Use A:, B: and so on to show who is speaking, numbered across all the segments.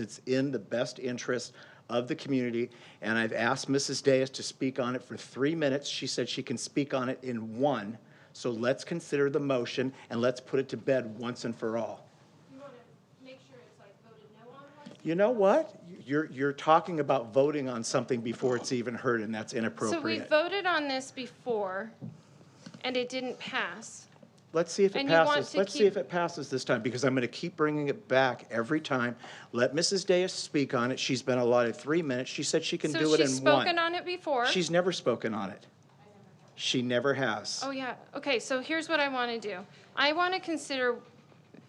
A: It's in the best interest of the community, and I've asked Mrs. Diaz to speak on it for three minutes. She said she can speak on it in one, so let's consider the motion and let's put it to bed once and for all.
B: You want to make sure it's like voted no on one?
A: You know what? You're, you're talking about voting on something before it's even heard, and that's
B: So we
A: inappropriate.
B: voted on this before, and it didn't pass.
A: Let's see if it
B: and you want
A: passes.
B: to
A: Let's see if
B: keep-
A: it passes this time, because I'm going to keep bringing it back every time. Let Mrs. Diaz speak on it. She's been allotted three minutes. She said she can do it in
B: So
A: one.
B: she's spoken on it before.
A: She's never spoken on it. She never has.
B: Oh, yeah. Okay, so here's what I want to do. I want to consider,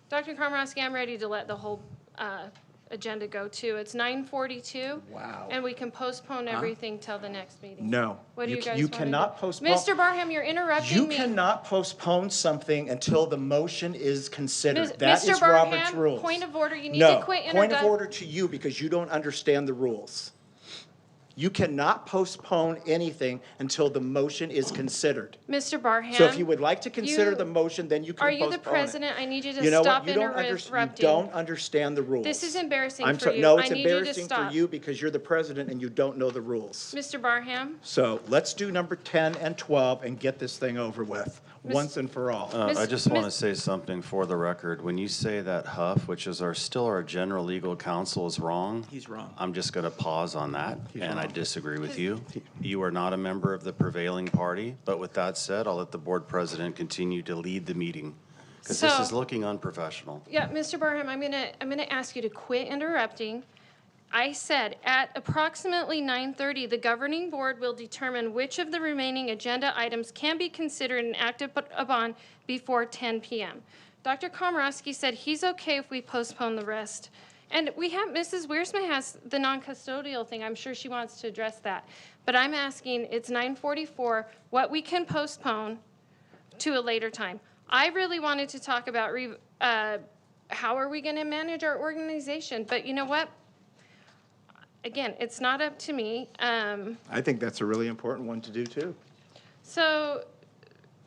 B: Dr. Komrowski, I'm ready to let the whole uh, agenda go too. It's 9:42.
A: Wow.
B: And we can postpone everything till the next meeting.
A: No.
B: What do
A: You
B: you
A: ca-
B: guys
A: you
B: want to do?
A: cannot postpone-
B: Mr. Barham, you're
A: You
B: interrupting me.
A: cannot postpone something until the motion is
B: Mis-
A: considered. That
B: Mr.
A: is Robert's
B: Barham,
A: rules.
B: point of order, you need
A: No,
B: to quit
A: point of
B: interrupting.
A: order to you because you don't understand the rules. You cannot postpone anything until the motion is considered.
B: Mr. Barham.
A: So if you would like to consider
B: you-
A: the motion, then you can
B: Are
A: postpone it.
B: you the president? I need you
A: You know
B: to
A: what?
B: stop
A: You don't under- you
B: interrupting.
A: don't understand the rules.
B: This is embarrassing
A: I'm
B: for
A: sorry.
B: you.
A: No,
B: I
A: it's
B: need you to
A: embarrassing for
B: stop.
A: you because you're the president and you don't know the rules.
B: Mr. Barham?
A: So let's do number 10 and 12 and get this thing over with, once and for all.
B: Miss-
C: Uh, I just want to
B: Miss-
C: say something for the record. When you say that Huff, which is our, still our general legal counsel, is wrong.
A: He's wrong.
C: I'm just going to pause on that, and
A: wrong.
C: I disagree with you. You are not a member of the prevailing party, but with that said, I'll let the board president continue to lead the meeting, because this
B: So-
C: is looking unprofessional.
B: Yeah, Mr. Barham, I'm gonna, I'm gonna ask you to quit interrupting. I said, at approximately 9:30, the governing board will determine which of the remaining agenda items can be considered and acted up- upon before 10 PM. Dr. Komorowski said he's okay if we postpone the rest. And we have, Mrs. Wiersma has the non-custodial thing, I'm sure she wants to address that. But I'm asking, it's 9:44, what we can postpone, to a later time. I really wanted to talk about re, uh, how are we going to manage our organization, but you know what? Again, it's not up to me. Um,
A: I think that's a really important one to do, too.
B: so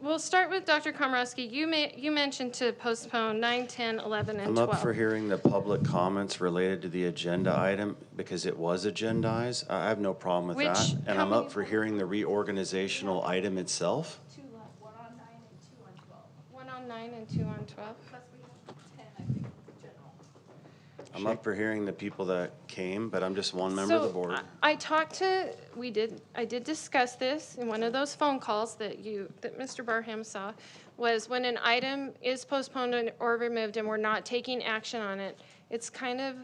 B: we'll start with Dr. Komorowski. You may, you mentioned to postpone 9, 10, 11, and
C: I'm
B: 12.
C: up for hearing the public comments related to the agenda item, because it was agendized. I I have no problem with
B: Which-
C: that. And
B: how
C: I'm up
B: many-
C: for hearing the reorganizational item itself.
D: two left, one on nine and two on twelve,
B: One on 9 and 2 on 12.
D: plus we have ten, I think, general.
C: I'm up for hearing the people that came, but I'm just one member of the
B: So, uh,
C: board.
B: I- I talked to, we did, I did discuss this in one of those phone calls that you, that Mr. Barham saw, was when an item is postponed and- or removed and we're not taking action on it, it's kind of,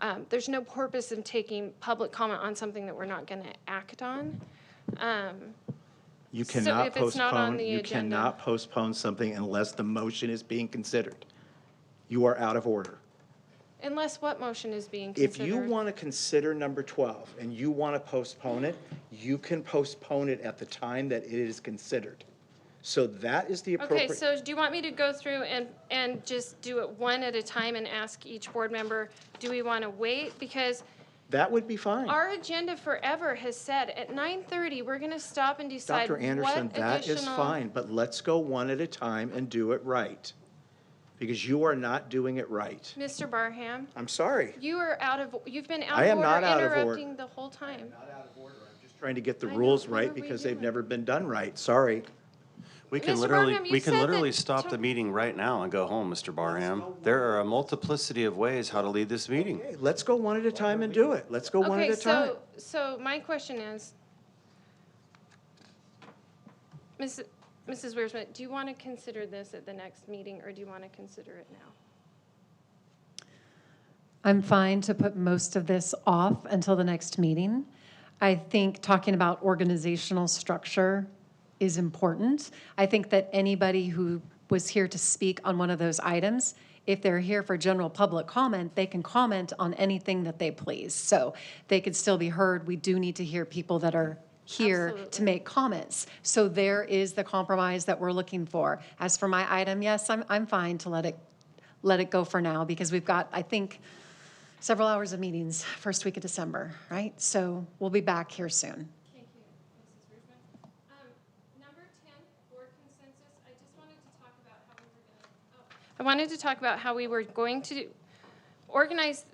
B: um, there's no purpose in taking public comment on something that we're not going to act on. Um,
A: You
B: So
A: cannot
B: if it's not on
A: postpone,
B: the
A: you
B: agenda-
A: cannot postpone something unless the motion is being considered. You are out of order.
B: Unless what motion is being
A: If
B: considered.
A: you want to consider number 12 and you want to postpone it, you can postpone it at the time that it is considered. So that is the
B: Okay,
A: appropriate.
B: so do you want me to go through and, and just do it one at a time and ask each board member, do we want to wait? Because
A: That would be fine.
B: Our agenda forever has said at nine thirty, we're gonna stop and decide
A: Dr.
B: what
A: Anderson, that is
B: additional-
A: fine, but let's go one at a time and do it right. Because you are not doing it right.
B: Mr. Barham,
A: I'm sorry.
B: you are out of, you've been out
A: I
B: of
A: am not
B: order
A: out of order.
B: interrupting the whole time.
A: Just trying to get the
B: I know,
A: rules
B: what are
A: right
B: we
A: because they've
B: doing?
A: never been done right. Sorry.
C: We can
B: Mr.
C: literally,
B: Barnum, you
C: we can
B: said
C: literally
B: that
C: stop
B: to-
C: the meeting right now and go home, Mr. Barham. There are a multiplicity of ways how to lead this meeting.
A: Hey, let's go one at a time and do it. Let's go one at
B: Okay,
A: a time.
B: so, so my question is, Mrs. Mrs. Wiersma, do you wanna consider this at the next meeting or do you wanna consider it now?
E: I'm fine to put most of this off until the next meeting. I think talking about organizational structure is important. I think that anybody who was here to speak on one of those items, if they're here for general public comment, they can comment on anything that they please. So they could still be heard. We do need to hear people that are here to
B: Absolutely.
E: make comments. So there is the compromise that we're looking for. As for my item, yes, I'm, I'm fine to let it, let it go for now because we've got, I think, several hours of meetings first week of December, right? So we'll be back here soon.
B: Thank you, Mrs. Rudman. Um, Number 10, board consensus, I oh. just wanted to talk about how we were going to, I wanted to talk about how we were going to organize